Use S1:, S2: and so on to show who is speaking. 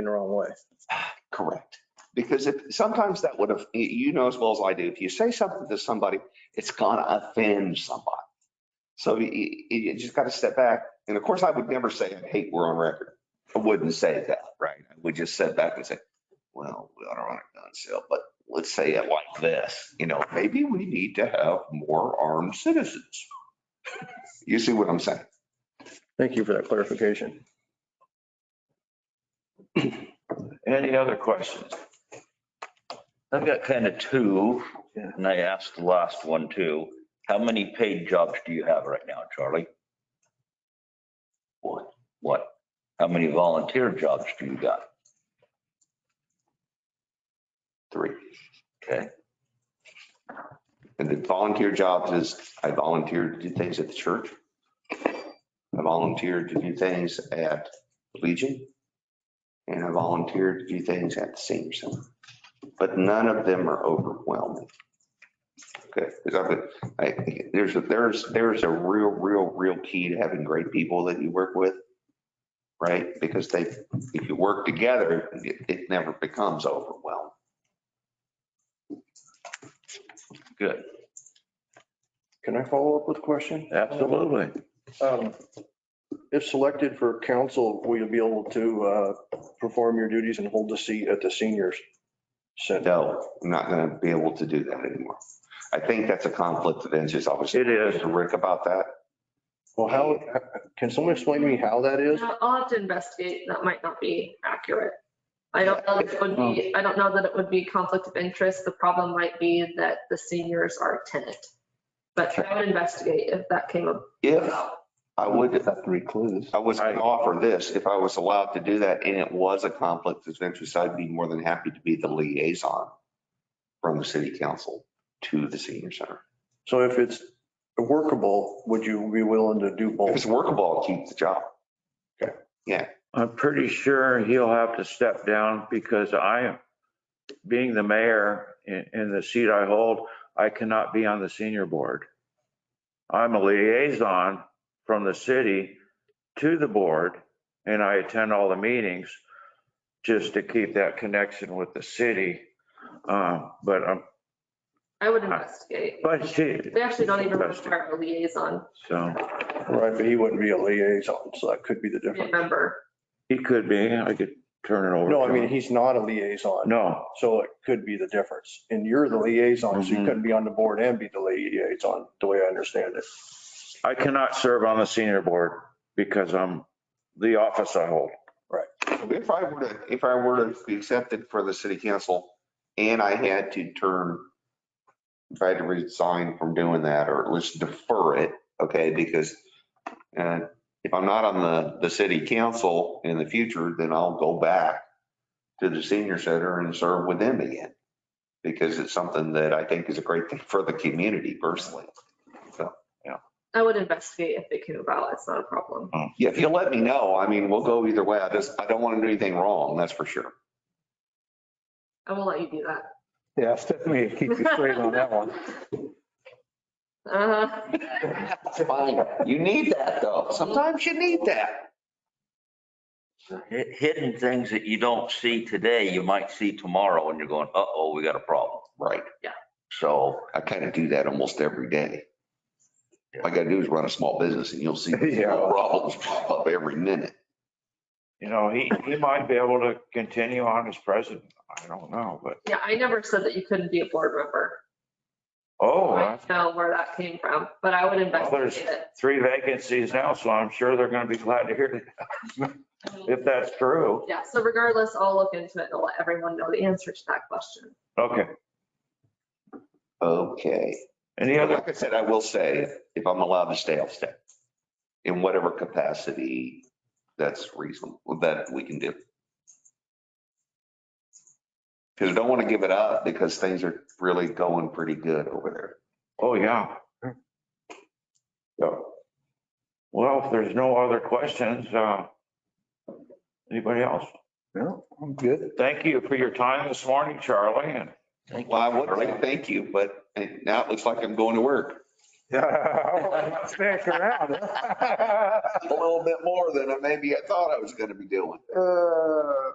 S1: in the wrong way.
S2: Correct. Because if, sometimes that would have, you- you know as well as I do, if you say something to somebody, it's gonna offend somebody. So you, you- you just gotta step back. And of course, I would never say, I hate we're on record. I wouldn't say that, right? I would just step back and say, well, we ought to run a gun sale, but let's say it like this, you know, maybe we need to have more armed citizens. You see what I'm saying?
S1: Thank you for that clarification.
S3: Any other questions? I've got kind of two, and I asked the last one too. How many paid jobs do you have right now, Charlie? One. What? How many volunteer jobs do you got?
S2: Three.
S3: Okay,
S2: And the volunteer jobs is, I volunteered to do things at the church. I volunteered to do things at Legion. And I volunteered to do things at the senior center. But none of them are overwhelming. Okay, because I, I, there's, a- there's, there's a real, real, real key to having great people that you work with. Right? Because they, if you work together, it, it never becomes overwhelming.
S3: good.
S1: Can I follow up with a question?
S3: Absolutely.
S1: Um, If selected for council, will you be able to uh, perform your duties and hold the seat at the seniors? center?
S2: no, I'm not going to be able to do that anymore. I think that's a conflict of interest. I was
S3: It is.
S2: talking to Rick about that.
S1: Well, how, can someone explain to me how that is?
S4: I'll I'll have to investigate. That might not be accurate. I don't know that it would be, I don't know that it would be conflict of interest. The problem might be that the seniors are a tenant. But I would investigate if that came up.
S2: If I would,
S1: recluse.
S2: I was going to offer this, if I was allowed to do that and it was a conflict of interest, I'd be more than happy to be the liaison from the city council to the senior center.
S1: So if it's workable, would you be willing to do
S2: If
S1: both?
S2: it's workable, I'll keep the job.
S5: I'm pretty sure he'll have to step down because I, being the mayor in, in the seat I hold, I cannot be on the senior board. I'm a liaison from the city to the board and I attend all the meetings just to keep that connection with the city. Uh, But, um,
S4: I
S6: Uh,
S4: would investigate.
S5: but she.
S4: They actually don't even require a liaison
S5: So
S1: Right, but he wouldn't be a liaison, so that could be the
S4: to be a
S1: difference.
S4: member.
S5: he could be, I could turn it over.
S1: No,
S5: to
S1: I mean,
S5: him.
S1: he's not a liaison,
S5: No,
S1: so it could be the difference. And you're the liaison, so you
S5: Mhm.
S1: couldn't be on the board and be the liaison, the way I understand it.
S5: I cannot serve on the senior board because I'm the office I hold.
S2: If I were to, if I were to be accepted for the city council and I had to turn, if I had to resign from doing that or at least defer it, okay, because uh, if I'm not on the, the city council in the future, then I'll go back to the senior center and serve with them again. Because it's something that I think is a great thing for the community personally.
S4: I would investigate if it came about. It's not a problem.
S2: Yeah, if you'll let me know, I mean, we'll go either way. I just, I don't want to do anything wrong, that's for sure.
S4: I will let you do that.
S6: Yeah, Stephanie, will keep you straight on that one.
S4: Uh,
S2: That's fine. You need that though. Sometimes you need that.
S3: Hi- Hidden things that you don't see today, you might see tomorrow and you're going, uh-oh, we got a problem.
S2: Right.
S3: So
S2: I kind of do that almost every day. All I got to do is run a small business and you'll see
S5: Yeah.
S2: small problems pop up every minute.
S5: You know, he, he might be able to continue on as president. I don't know, but,
S4: yeah, I never said that you couldn't be a board member.
S5: oh,
S4: I
S5: that's
S4: don't know where that came from, but I would
S5: there's-
S4: investigate it.
S5: three vacancies now, so I'm sure they're going to be glad to hear
S4: I mean,
S5: that, if that's true.
S4: Yeah, so regardless, I'll look into it and let everyone know the answer to that question.
S5: Okay.
S2: Okay.
S5: Any other,
S2: Like I said, I will say, if I'm allowed to stay, I'll stay. In whatever capacity that's reasonable, that we can do. Because I don't want to give it up because things are really going pretty good over there.
S5: oh, yeah.
S2: So,
S5: Well, if there's no other questions, uh, anybody else?
S6: No, I'm good.
S5: Thank you for your time this morning, Charlie, and
S3: thank you.
S2: well, I would say thank you, but now it looks like I'm going to work.
S6: Yeah, Stick around.
S2: a little bit more than I maybe I thought I was gonna be doing.
S6: Uh,